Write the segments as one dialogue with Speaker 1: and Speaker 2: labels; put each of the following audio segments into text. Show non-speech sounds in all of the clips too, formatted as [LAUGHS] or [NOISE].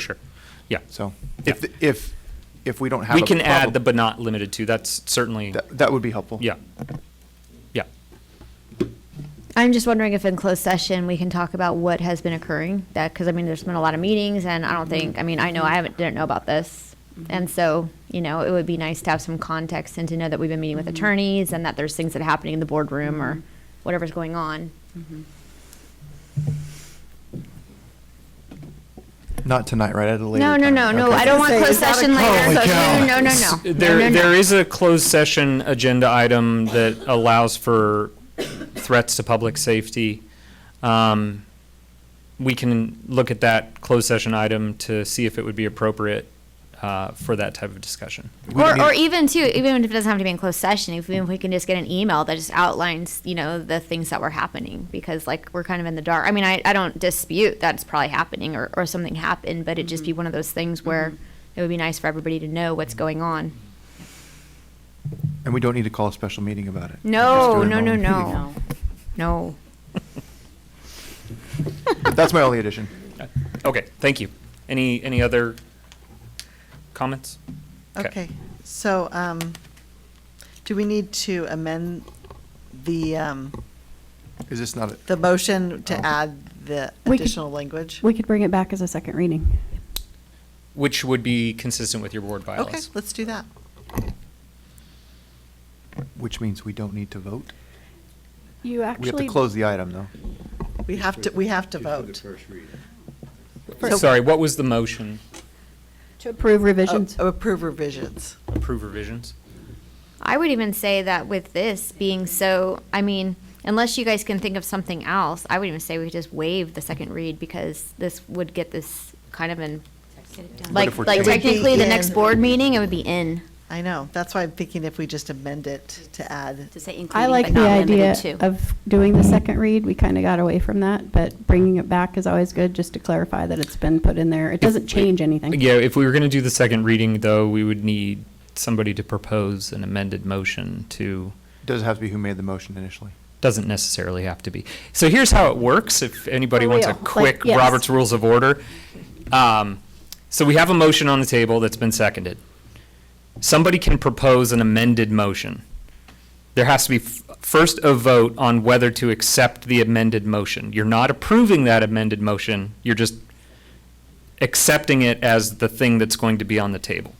Speaker 1: Sure. Yeah.
Speaker 2: So
Speaker 1: Yeah.
Speaker 2: if, if, if we don't have.
Speaker 1: We
Speaker 2: a
Speaker 1: can add the
Speaker 2: problem-
Speaker 1: but not limited to. That's certainly,
Speaker 2: That, that would be helpful.
Speaker 1: yeah. Yeah.
Speaker 3: I'm just wondering if in closed session, we can talk about what has been occurring, that, because I mean, there's been a lot of meetings, and I don't think, I mean, I know I haven't, didn't know about this. And so, you know, it would be nice to have some context and to know that we've been meeting with attorneys and that there's things that are happening in the boardroom or whatever's going on.
Speaker 2: Not tonight, right? At a later
Speaker 3: No, no,
Speaker 2: time.
Speaker 3: no, no,
Speaker 2: Okay. Oh,
Speaker 3: I don't want
Speaker 4: Say, is
Speaker 3: closed
Speaker 4: that a
Speaker 3: session
Speaker 2: Holy
Speaker 3: later, so,
Speaker 2: cow.
Speaker 3: no, no, no, no, no. No, no,
Speaker 1: There,
Speaker 3: no.
Speaker 1: there is a closed session agenda item that allows for threats to public safety. Um, We can look at that closed session item to see if it would be appropriate uh, for that type of discussion.
Speaker 2: We
Speaker 3: Or, e-
Speaker 2: need-
Speaker 3: or even too, even if it doesn't have to be in closed session, if we, if we can just get an email that just outlines, you know, the things that were happening, because like, we're kind of in the dark. I mean, I, I don't dispute that it's probably happening or, or something happened, but it'd just
Speaker 2: Mm-hmm.
Speaker 3: be one of those things where it would be nice for everybody to know what's going on.
Speaker 2: And we don't need to call a special meeting about it. We
Speaker 3: No,
Speaker 2: just do it
Speaker 3: no,
Speaker 2: in
Speaker 3: no,
Speaker 2: a normal
Speaker 3: no.
Speaker 2: meeting.
Speaker 4: No.
Speaker 3: No.
Speaker 2: That's my only addition.
Speaker 1: Okay, thank you. Any, any other comments?
Speaker 4: Okay, so, um, do we need to amend the, um,
Speaker 2: Is this not, a-
Speaker 4: the motion
Speaker 2: Oh.
Speaker 4: to add the
Speaker 5: We could-
Speaker 4: additional language?
Speaker 5: We could bring it back as a second reading.
Speaker 1: Which would be consistent with your board bylaws.
Speaker 4: Okay, let's do that.
Speaker 2: which means we don't need to vote?
Speaker 5: You
Speaker 2: We have to
Speaker 5: actually,
Speaker 2: close the item, though.
Speaker 4: We have to, we have to vote.
Speaker 5: So-
Speaker 1: Sorry, what was the motion?
Speaker 5: to approve revisions.
Speaker 4: Oh, Approve revisions.
Speaker 1: Approve revisions?
Speaker 3: I would even say that with this being so, I mean, unless you guys can think of something else, I would even say we could just waive the second read because this would get this kind of in, like,
Speaker 2: if we're changing- It would
Speaker 3: like
Speaker 2: be
Speaker 3: technically the next
Speaker 4: in.
Speaker 3: board meeting, it would be in.
Speaker 4: I know, that's why I'm thinking if we just amend it to add,
Speaker 6: To say
Speaker 5: I
Speaker 6: including
Speaker 5: like
Speaker 6: but
Speaker 5: the
Speaker 6: not limited
Speaker 5: idea
Speaker 6: to.
Speaker 5: of doing the second read. We kind of got away from that, but bringing it back is always good, just to clarify that it's been put in there. It doesn't change anything.
Speaker 1: Yeah, if we were going to do the second reading, though, we would need somebody to propose an amended motion to,
Speaker 2: Doesn't have to be who made the motion initially.
Speaker 1: doesn't necessarily have to be. So here's how it works, if anybody
Speaker 5: For
Speaker 1: wants a
Speaker 5: real, like,
Speaker 1: quick
Speaker 5: yes.
Speaker 1: Robert's Rules of Order. Um, So we have a motion on the table that's been seconded. Somebody can propose an amended motion. There has to be f- first a vote on whether to accept the amended motion. You're not approving that amended motion, you're just accepting it as the thing that's going to be on the table.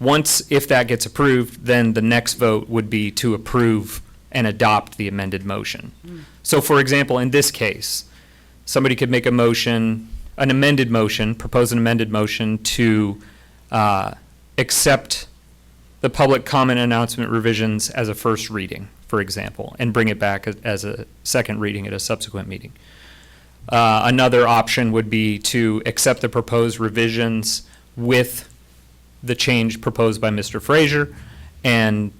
Speaker 1: Once, if that gets approved, then the next vote would be to approve and adopt the amended motion. So for example, in this case, somebody could make a motion, an amended motion, propose an amended motion to uh, accept the public comment announcement revisions as a first reading, for example, and bring it back a- as a second reading at a subsequent meeting. Uh, Another option would be to accept the proposed revisions with the change proposed by Mr. Frazier. And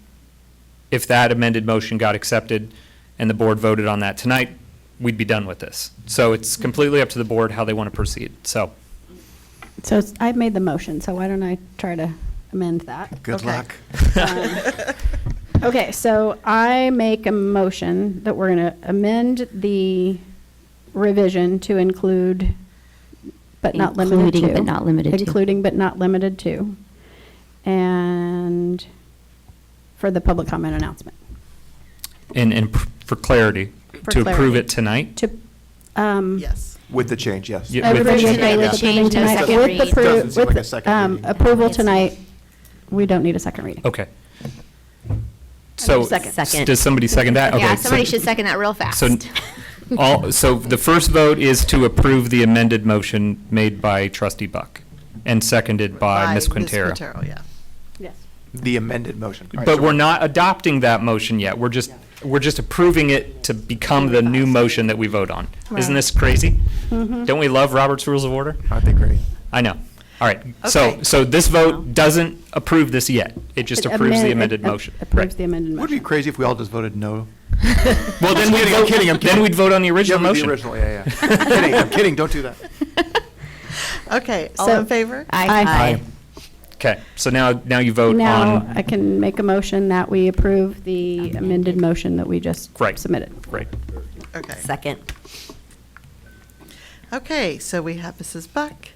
Speaker 1: if that amended motion got accepted and the board voted on that tonight, we'd be done with this. So it's completely up to the board how they want to proceed. So
Speaker 5: So it's- I made the motion, so why don't I try to amend that?
Speaker 2: Good
Speaker 4: Okay.
Speaker 2: luck.
Speaker 5: Um, Okay, so I make a motion that we're going to amend the revision to include, but not limited to.
Speaker 6: Including but not limited to.
Speaker 5: Including but not limited to. And for the public comment announcement.
Speaker 1: And, and pr- for clarity,
Speaker 5: For
Speaker 1: to approve
Speaker 5: clarity.
Speaker 1: it tonight?
Speaker 5: To, um.
Speaker 4: yes.
Speaker 2: With the change, yes.
Speaker 1: Yeah.
Speaker 5: Everybody
Speaker 1: With the
Speaker 5: okay
Speaker 3: change.
Speaker 5: with
Speaker 3: The
Speaker 5: the change
Speaker 3: change to
Speaker 5: tonight?
Speaker 3: second
Speaker 5: With the
Speaker 3: reading.
Speaker 5: pro-
Speaker 2: Doesn't seem
Speaker 5: with
Speaker 2: like a second
Speaker 5: um,
Speaker 2: reading.
Speaker 5: Approval
Speaker 3: Yes.
Speaker 5: tonight, we don't need a second reading.
Speaker 1: Okay. So,
Speaker 5: Second.
Speaker 1: s- does somebody second that? Okay.
Speaker 3: Yeah,
Speaker 1: so-
Speaker 3: somebody should second that real fast.
Speaker 1: So, [LAUGHS] all, so the first vote is to approve the amended motion made by trustee Buck and seconded by Ms. Quintero.
Speaker 4: Quintero, yeah.
Speaker 5: Yes.
Speaker 2: The amended motion. All right,
Speaker 1: But
Speaker 2: so
Speaker 1: we're not adopting that motion yet. We're just, we're just approving it to become the new motion that we vote on. Isn't
Speaker 5: Right.
Speaker 1: this crazy? Don't we love Robert's Rules of Order?
Speaker 2: Aren't they great?
Speaker 1: I know. All right. So,
Speaker 4: Okay.
Speaker 1: so this vote doesn't approve this yet. It just
Speaker 5: It
Speaker 1: approves
Speaker 5: amend-
Speaker 1: the
Speaker 5: it
Speaker 1: amended
Speaker 5: a-
Speaker 1: motion.
Speaker 5: Approves
Speaker 1: Right.
Speaker 5: the amended
Speaker 2: Would it be
Speaker 5: motion.
Speaker 2: crazy if we all just voted no?
Speaker 1: Well, then
Speaker 2: I'm
Speaker 1: we'd
Speaker 2: kidding, I'm
Speaker 1: vote,
Speaker 2: kidding, I'm
Speaker 1: then
Speaker 2: kidding.
Speaker 1: we'd vote on the
Speaker 2: Yeah,
Speaker 1: original
Speaker 2: we did
Speaker 1: motion.
Speaker 2: Original, yeah, yeah. [LAUGHS] I'm kidding, I'm kidding, don't do that.
Speaker 4: Okay, all
Speaker 5: So-
Speaker 4: in favor?
Speaker 5: Aye.
Speaker 1: Okay. So now, now you vote
Speaker 5: Now,
Speaker 1: on,
Speaker 5: I can make a motion that we approve the amended motion that we just
Speaker 1: Right.
Speaker 5: submitted.
Speaker 1: right.
Speaker 4: Okay,
Speaker 6: Second.
Speaker 4: okay, so we have Mrs. Buck,